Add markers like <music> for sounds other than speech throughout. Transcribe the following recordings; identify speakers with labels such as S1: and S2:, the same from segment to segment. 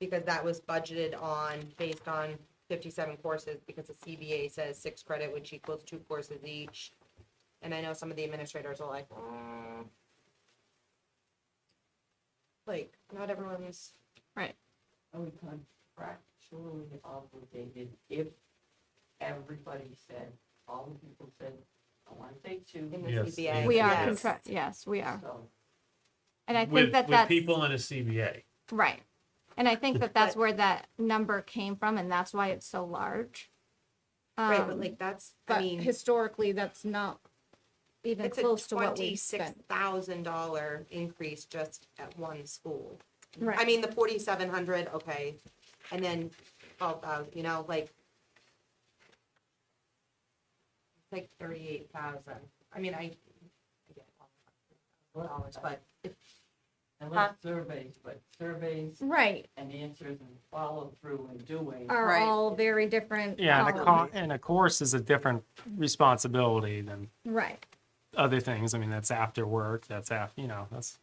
S1: because that was budgeted on, based on fifty-seven courses, because the CBA says six credit, which equals two courses each. And I know some of the administrators are like, "Mm." Like, not everyone's,
S2: Are we contractually obligated if everybody said, all the people said, I want to take two?
S1: In the
S3: Yes,
S1: CBA.
S3: and-
S4: We are
S1: Yes.
S4: contract, yes, we are.
S2: So,
S4: And I
S3: with,
S4: think that
S3: with
S4: that's,
S3: people in a CBA.
S4: right. And I think that that's
S1: But-
S4: where that number came from and that's why it's so large.
S1: right, but
S4: Um,
S1: like, that's, I
S4: But
S1: mean,
S4: historically, that's not even
S1: it's a
S4: close to what we
S1: twenty-six
S4: spent.
S1: thousand dollar increase just at one school. I
S4: Right.
S1: mean, the forty-seven hundred, okay, and then twelve thousand, you know, like. it's Like thirty-eight thousand, I mean, I. I get all the Dollars, but
S2: I love surveys, but surveys
S4: Right,
S2: and answers and follow through and doing.
S4: are
S1: Right.
S4: all very different.
S5: Yeah, and a, co-
S4: columns.
S5: and a course is a different responsibility than
S4: Right,
S5: other things. I mean, that's after work, that's after, you know, that's,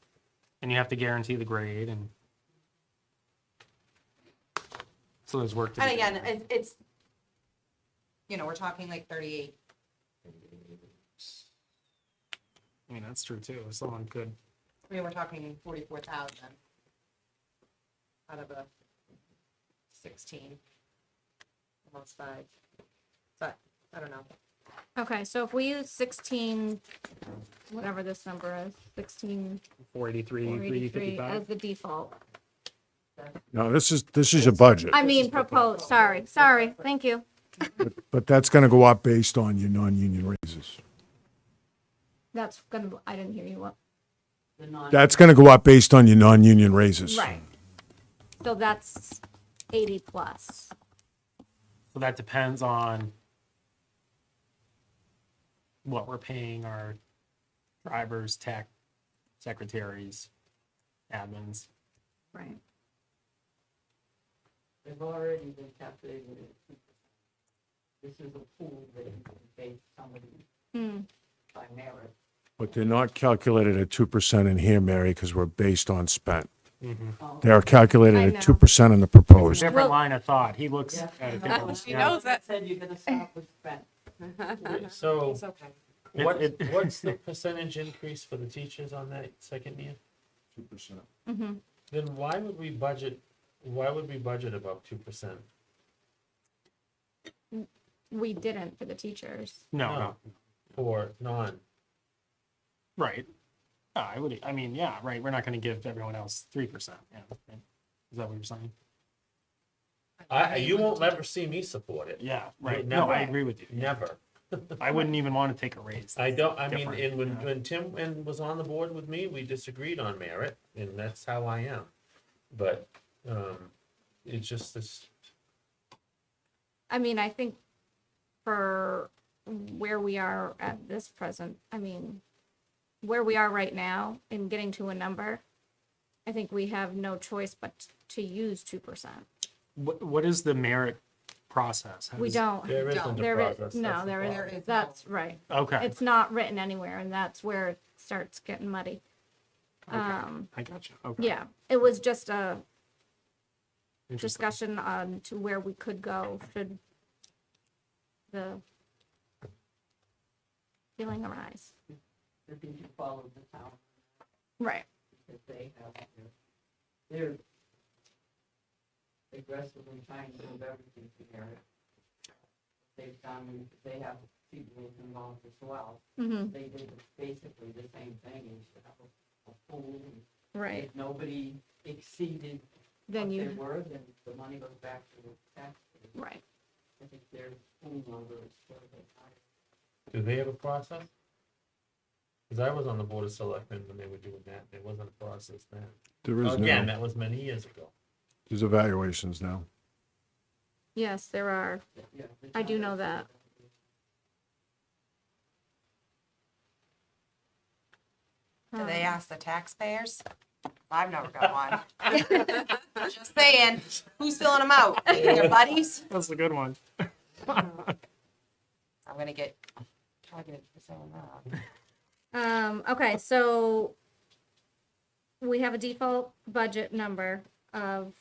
S5: and you have to guarantee the grade and so there's work to do.
S1: and again, it- it's. You know, we're talking like thirty-eight,
S5: I mean, that's true too. Someone could,
S1: I mean, we're talking forty-four thousand. Out of a sixteen. Almost five, but, I don't know,
S4: okay, so if we use sixteen, whatever this number is, sixteen,
S5: four eighty-three,
S4: four
S5: three
S4: eighty-three
S5: fifty-five.
S4: as the default.
S6: No, this is, this is your budget,
S4: I mean, proposed, sorry, sorry, thank you.
S6: but that's gonna go up based on your non-union raises.
S4: That's gonna, I didn't hear you, what?
S2: the non-
S6: That's gonna go up based on your non-union raises.
S4: Right. So that's eighty plus.
S5: So that depends on what we're paying our drivers, tech, secretaries, admins.
S4: Right.
S2: They've already been calculated. at 2%. This is a pool that you can base somebody
S4: Hmm,
S2: by merit.
S6: But they're not calculated at two percent in here, Mary, because we're based on spent.
S2: Oh,
S6: They are calculated
S4: I
S6: at
S4: know.
S6: two percent in the proposed.
S4: Well-
S5: Different line of thought. He looks
S2: yeah.
S5: at it differently.
S2: She
S5: Yeah.
S2: knows that. Said you're gonna stop with spent.
S3: So
S1: it's okay.
S5: It-
S3: what,
S5: <laughs> it-
S3: what's the percentage increase for the teachers on that second year?
S6: Two percent.
S4: mhm.
S3: Then why would we budget, why would we budget above two percent?
S4: We didn't for the teachers.
S3: oh.
S5: No, no,
S3: For non,
S5: right. No, I would, I mean, yeah, right. We're not going to give everyone else 3%. Yeah. right. Is that what you're saying?
S3: I, you won't ever see me support it,
S5: Yeah, right.
S3: No,
S5: No, I
S3: I-
S5: agree with you.
S3: never.
S5: I wouldn't even want to take a raise.
S3: I don't, I mean,
S5: Different,
S3: and when,
S5: yeah.
S3: when Tim and was on the board with me, we disagreed on merit, and that's how I am. But, um, it's just this,
S4: I mean, I think for where we are at this present, I mean, where we are right now in getting to a number, I think we have no choice but to use two percent.
S5: What, what is the merit process? How
S4: We
S5: does-
S4: don't.
S3: there isn't a
S4: There is,
S3: process.
S4: no,
S3: that's the
S4: there
S3: problem.
S4: is, that's right.
S5: Okay.
S4: It's not written anywhere and that's where it starts getting muddy.
S5: Okay.
S4: Um,
S5: I gotcha. Okay.
S4: yeah, it was just a
S5: Interesting.
S4: discussion on to where we could go should the feeling arise.
S2: That they should follow the town.
S4: Right.
S2: that they have, here. they're aggressively trying to move everything to merit. They've done, they have people involved as well,
S4: Mm-hmm.
S2: they did basically the same thing, you should have a- a pool. and
S4: Right.
S2: If nobody exceeded what
S4: Then
S2: they
S4: you,
S2: were, then the money goes back to the taxpayer.
S4: right.
S2: I think their pool number is sort of high.
S3: Do they have a process? Cause I was on the board of selectmen when they were doing that, there wasn't a process then.
S6: There is
S3: Again,
S6: now,
S3: that was many years ago.
S6: there's evaluations now.
S4: Yes, there are.
S2: Yeah, the
S4: I do
S2: town
S4: know
S2: does
S4: that.
S7: Do they
S4: um,
S7: ask the taxpayers? I've never got one. <laughs> Just saying,
S1: Who's filling them out?
S7: their buddies,
S5: That's a good one.
S7: I'm gonna get targeted for saying that.
S4: Um, okay, so we have a default budget number of